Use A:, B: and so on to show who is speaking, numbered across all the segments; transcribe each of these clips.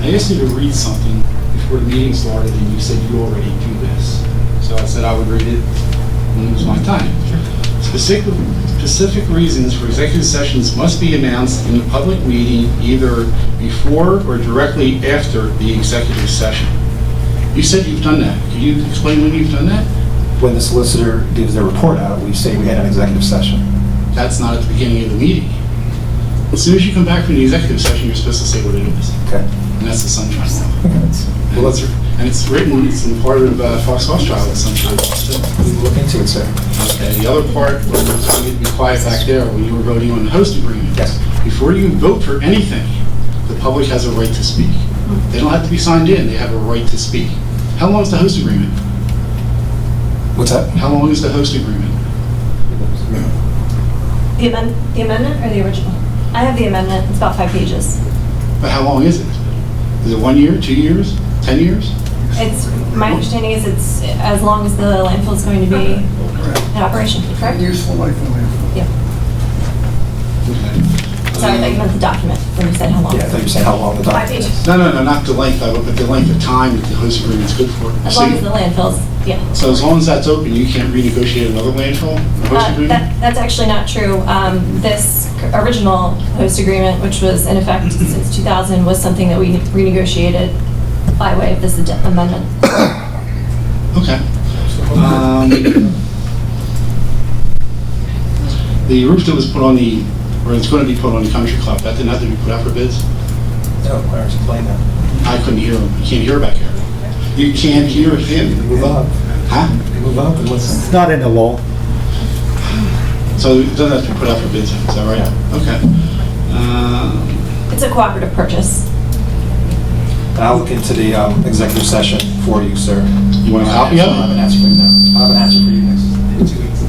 A: I asked you to read something before the meeting started, and you said you already do this. So I said I would read it when it was my time. Specific, specific reasons for executive sessions must be announced in a public meeting either before or directly after the executive session. You said you've done that. Can you explain when you've done that?
B: When the solicitor gives their report out, we say we had an executive session.
A: That's not at the beginning of the meeting. As soon as you come back from the executive session, you're supposed to say what it is,
B: Okay.
A: and that's the sunshine law.
B: Well,
A: And
B: let's
A: it's, and it's written, it's in part of uh, Fox Rothschild, the sunshine law.
B: we will look into it, sir.
A: Okay, the other part, was you'd be quiet back there when you were voting on the host agreement.
B: Yes.
A: Before you vote for anything, the public has a right to speak. They don't have to be signed in, they have a right to speak. How long is the host agreement?
B: What's that?
A: How long is the host agreement?
C: The amendment, the amendment or the original? I have the amendment, it's about five pages.
A: But how long is it? Is it one year, two years, 10 years?
C: It's, my understanding is it's as long as the landfill is going to be in operation, correct?
D: Useful life in landfill.
A: Okay.
C: Sorry, I thought you meant the document when you said how long.
B: Yeah, I thought you were saying how long the
C: Five
B: document
C: pages,
B: is.
A: No, no, no, not the length of it, but the length of time that the host agreement's good for.
C: as
A: So
C: long
A: you-
C: as the landfill's, yeah.
A: So as long as that's open, you can't renegotiate another landfill, a host
C: Uh,
A: agreement?
C: that- That's actually not true. Um, This c- original host agreement, which was in effect since 2000, was something that we renegotiated by way of this ad- amendment.
A: Okay. Um, The roof that was put on the, or it's going to be put on the country club, that didn't have to be put out for bids?
B: No, I already explained that.
A: I couldn't hear him, you can't hear back here. You can't hear him,
B: Move up,
A: huh?
B: move up and listen.
E: It's not in the law.
A: So it doesn't have to be put out for bids, is that right? Okay. Um,
C: It's a cooperative purchase.
B: And I'll look into the um, executive session for you, sir.
A: You want a copy of
B: I have an
A: it?
B: answer for you now. I'll have an answer for you next, in two weeks.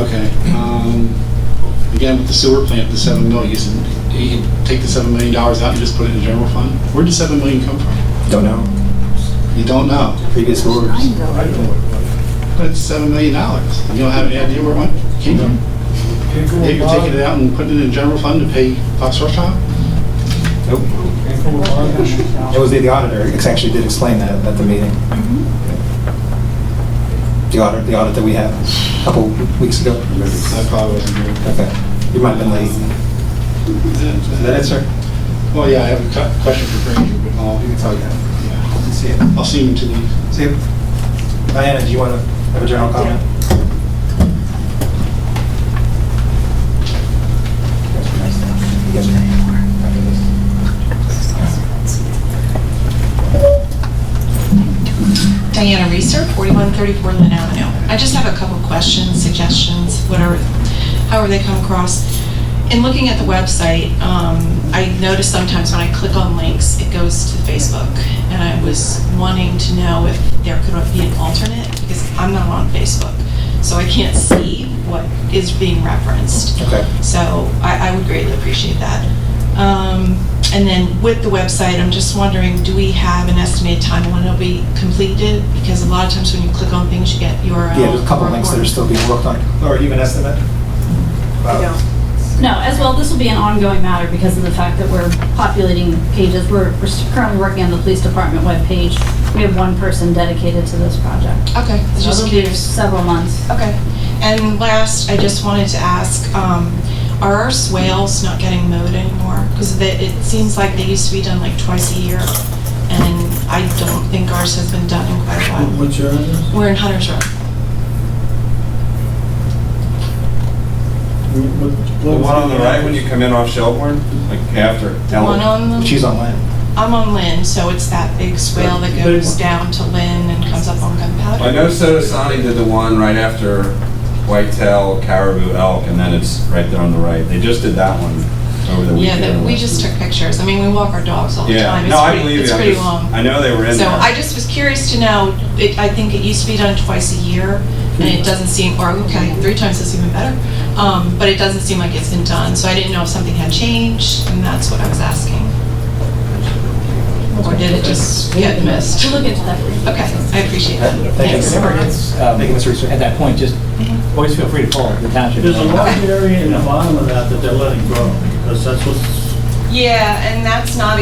A: Okay. um, Again, with the sewer plant, the seven million, you said you could take the seven million dollars out and just put it in the general fund? Where'd the seven million come from?
B: Don't know.
A: You don't know.
B: Previous orders.
A: But it's seven million dollars. You don't have any idea where one came from? Yeah, you're taking it out and putting it in general fund to pay Fox Restaurant?
B: Nope. It was the the auditor, ex- actually did explain that at the meeting. The audit, the audit that we had a couple weeks ago.
A: I probably wasn't here.
B: Okay. You might have been late. Is that it, sir?
A: Well, yeah, I have a cu- question for Granger, but I'll, yeah.
B: See it.
A: I'll see him to leave.
B: See it. Diana, do you want to have a general comment?
F: Diana Reeser, 4134 Lynn Avenue. I just have a couple questions, suggestions, whatever, however they come across. In looking at the website, um, I notice sometimes when I click on links, it goes to Facebook. And I was wanting to know if there could be an alternate, because I'm not on Facebook, so I can't see what is being referenced.
B: Okay.
F: So I, I would greatly appreciate that. Um, And then with the website, I'm just wondering, do we have an estimated time when it'll be completed? Because a lot of times when you click on things, you get uh, URL.
B: Yeah, there's a couple
F: or-
B: links that are
F: or-
B: still being worked on, or even estimate. About-
G: No, as well, this will be an ongoing matter because of the fact that we're populating pages. We're we're currently working on the police department webpage. We have one person dedicated to this project.
F: Okay, I was just
G: So it'll be
F: curious.
G: Several months.
F: Okay. And last, I just wanted to ask, um, are our swales not getting mowed anymore? Because it seems like they used to be done like twice a year, and I don't think ours has been done in quite a while.
D: What's your address?
F: We're in Hunter's Row.
H: The one on the right when you come in off Shelburne, like after.
F: The one on the...
B: She's online.
F: I'm on Lynn, so it's that big swale that goes down to Lynn and comes up on Gunpowder.
H: I know Sotosani did the one right after Whitetail, Caribou, Elk, and then it's right there on the right. They just did that one over the
F: Yeah,
H: weekend.
F: that, we just took pictures. I mean, we walk our dogs all the
H: Yeah,
F: time. It's
H: no, I
F: pretty-
H: believe you.
F: It's
H: I'm
F: pretty
H: just-
F: long.
H: I know they were in
F: So
H: there.
F: I just was curious to know, it, I think it used to be done twice a year, and it doesn't seem, or, okay, three times is even better. Um, but it doesn't seem like it's been done, so I didn't know if something had changed, and that's what I was asking. Or did it just get missed?
G: We'll look into that.
F: Okay, I appreciate that.
B: uh, Thank you.
F: Thanks.
B: Um, Thank you, Mr. Reeser.
E: At that point, just, always feel free to call the township.
D: There's a large area in the bottom of that that they're letting grow, because that's what's
F: Yeah, and that's not